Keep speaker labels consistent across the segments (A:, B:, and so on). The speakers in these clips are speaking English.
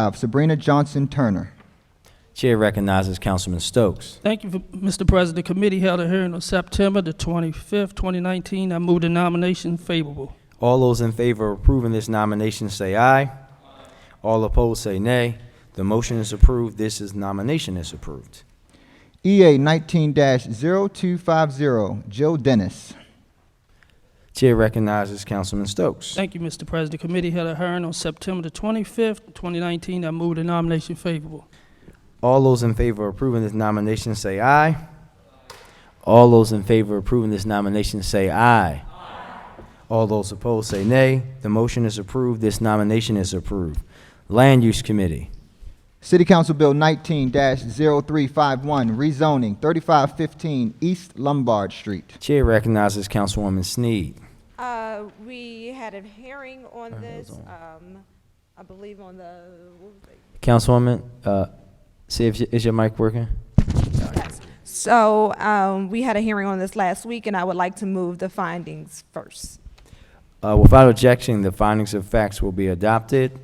A: Five, Sabrina Johnson Turner.
B: Chair recognizes Councilman Stokes.
C: Thank you, Mr. President. Committee held a hearing on September the 25th, 2019. I move the nomination favorable.
B: All those in favor of approving this nomination say aye. All opposed say nay. The motion is approved. This is nomination is approved.
A: EA 19 0250, Jill Dennis.
B: Chair recognizes Councilman Stokes.
C: Thank you, Mr. President. Committee held a hearing on September the 25th, 2019. I move the nomination favorable.
B: All those in favor of approving this nomination say aye. All those in favor of approving this nomination say aye. All those opposed say nay. The motion is approved. This nomination is approved. Land Use Committee.
A: City Council Bill 19 0351, rezoning 3515 East Lombard Street.
B: Chair recognizes Councilwoman Sneed.
D: Uh, We had a hearing on this,
B: on.
D: um, I believe on the, what was it?
B: Councilwoman, uh, see if, y- is your mic working?
D: Yes. So um, we had a hearing on this last week, and I would like to move the findings first.
B: Uh, without objection, the findings of facts will be adopted.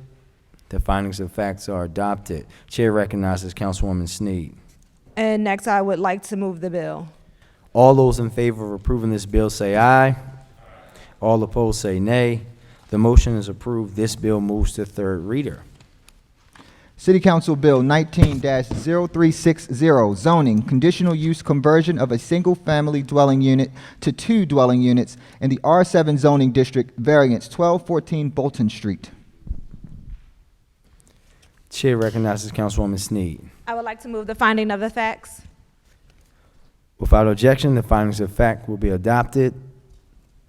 B: The findings of facts are adopted. Chair recognizes Councilwoman Sneed.
D: And next, I would like to move the bill.
B: All those in favor of approving this bill say aye. All opposed say nay. The motion is approved. This bill moves to third reader.
A: City Council Bill 19 0360, zoning, conditional use conversion of a single family dwelling unit to two dwelling units in the R7 zoning district, variance 1214 Bolton Street.
B: Chair recognizes Councilwoman Sneed.
D: I would like to move the finding of the facts.
B: Without objection, the findings of fact will be adopted.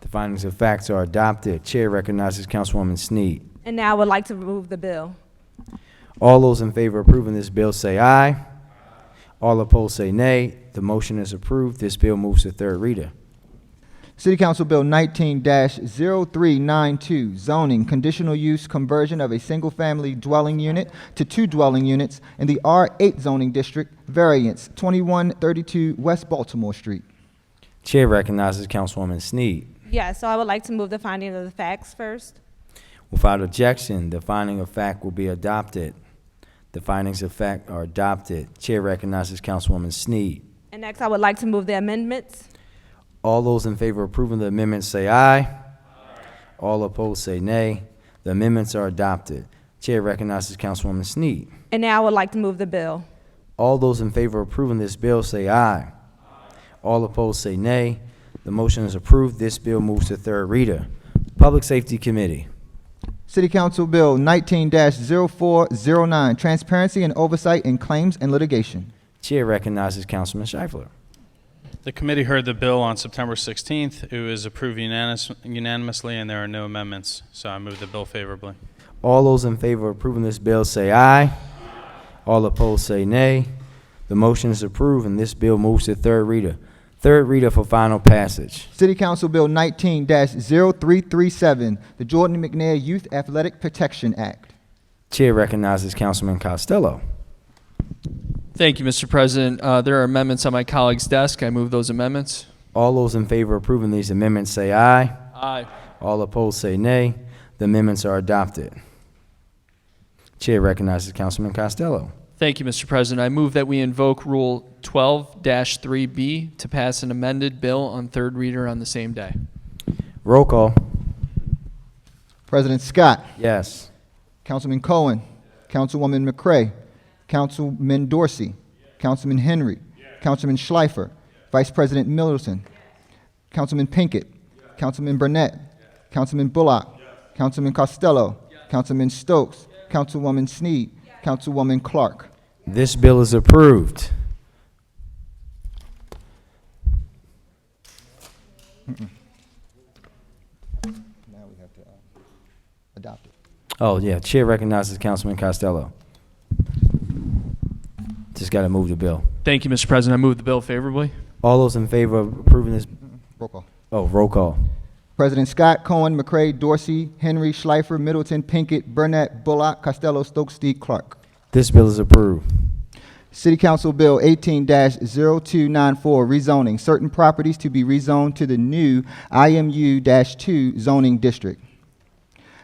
B: The findings of facts are adopted. Chair recognizes Councilwoman Sneed.
D: And now I would like to move the bill.
B: All those in favor of approving this bill say aye. All opposed say nay. The motion is approved. This bill moves to third reader.
A: City Council Bill 19 0392, zoning, conditional use conversion of a single family dwelling unit to two dwelling units in the R8 zoning district, variance 2132 West Baltimore Street.
B: Chair recognizes Councilwoman Sneed.
D: Yeah, so I would like to move the finding of the facts first.
B: Without objection, the finding of fact will be adopted. The findings of fact are adopted. Chair recognizes Councilwoman Sneed.
D: And next, I would like to move the amendments.
B: All those in favor of approving the amendment say aye. All opposed say nay. The amendments are adopted. Chair recognizes Councilwoman Sneed.
D: And now I would like to move the bill.
B: All those in favor of approving this bill say aye. All opposed say nay. The motion is approved. This bill moves to third reader. Public Safety Committee.
A: City Council Bill 19 0409, transparency and oversight in claims and litigation.
B: Chair recognizes Councilman Scheifler.
E: The committee heard the bill on September 16th. It was approved unanimous- unanimously, and there are no amendments, so I move the bill favorably.
B: All those in favor of approving this bill say aye. All opposed say nay. The motion is approved and this bill moves to third reader. Third reader for final passage.
A: City Council Bill 19 0337, the Jordan McNair Youth Athletic Protection Act.
B: Chair recognizes Councilman Costello.
F: Thank you, Mr. President. Uh, There are amendments on my colleague's desk. I move those amendments.
B: All those in favor of approving these amendments say aye.
F: Aye.
B: All opposed say nay. The amendments are adopted. Chair recognizes Councilman Costello.
F: Thank you, Mr. President. I move that we invoke Rule 12-3B to pass an amended bill on third reader on the same day.
B: Roll call.
A: President Scott.
B: Yes.
A: Councilman Cohen. Councilwoman McCray. Councilman Dorsey. Councilman Henry. Councilman Schleifer. Vice President Middleton. Councilman Pinkett. Councilman Burnett. Councilman Bullock. Councilman Costello. Councilman Stokes. Councilwoman Snead. Councilwoman Clark.
B: This bill is approved.
A: Now we have to uh, adopt it.
B: Oh, yeah, Chair recognizes Councilman Costello. Just got to move the bill.
F: Thank you, Mr. President. I move the bill favorably.
B: All those in favor of approving this,
A: Roll call.
B: oh, roll call.
A: President Scott, Cohen, McCray, Dorsey, Henry, Schleifer, Middleton, Pinkett, Burnett, Bullock, Costello, Stokes, Snead, Clark.
B: This bill is approved.
A: City Council Bill 18 0294, rezoning certain properties to be rezoned to the new IMU 2 zoning district.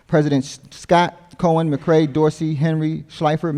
A: President S- Scott, Cohen, McCray, Dorsey, Henry, Schleifer,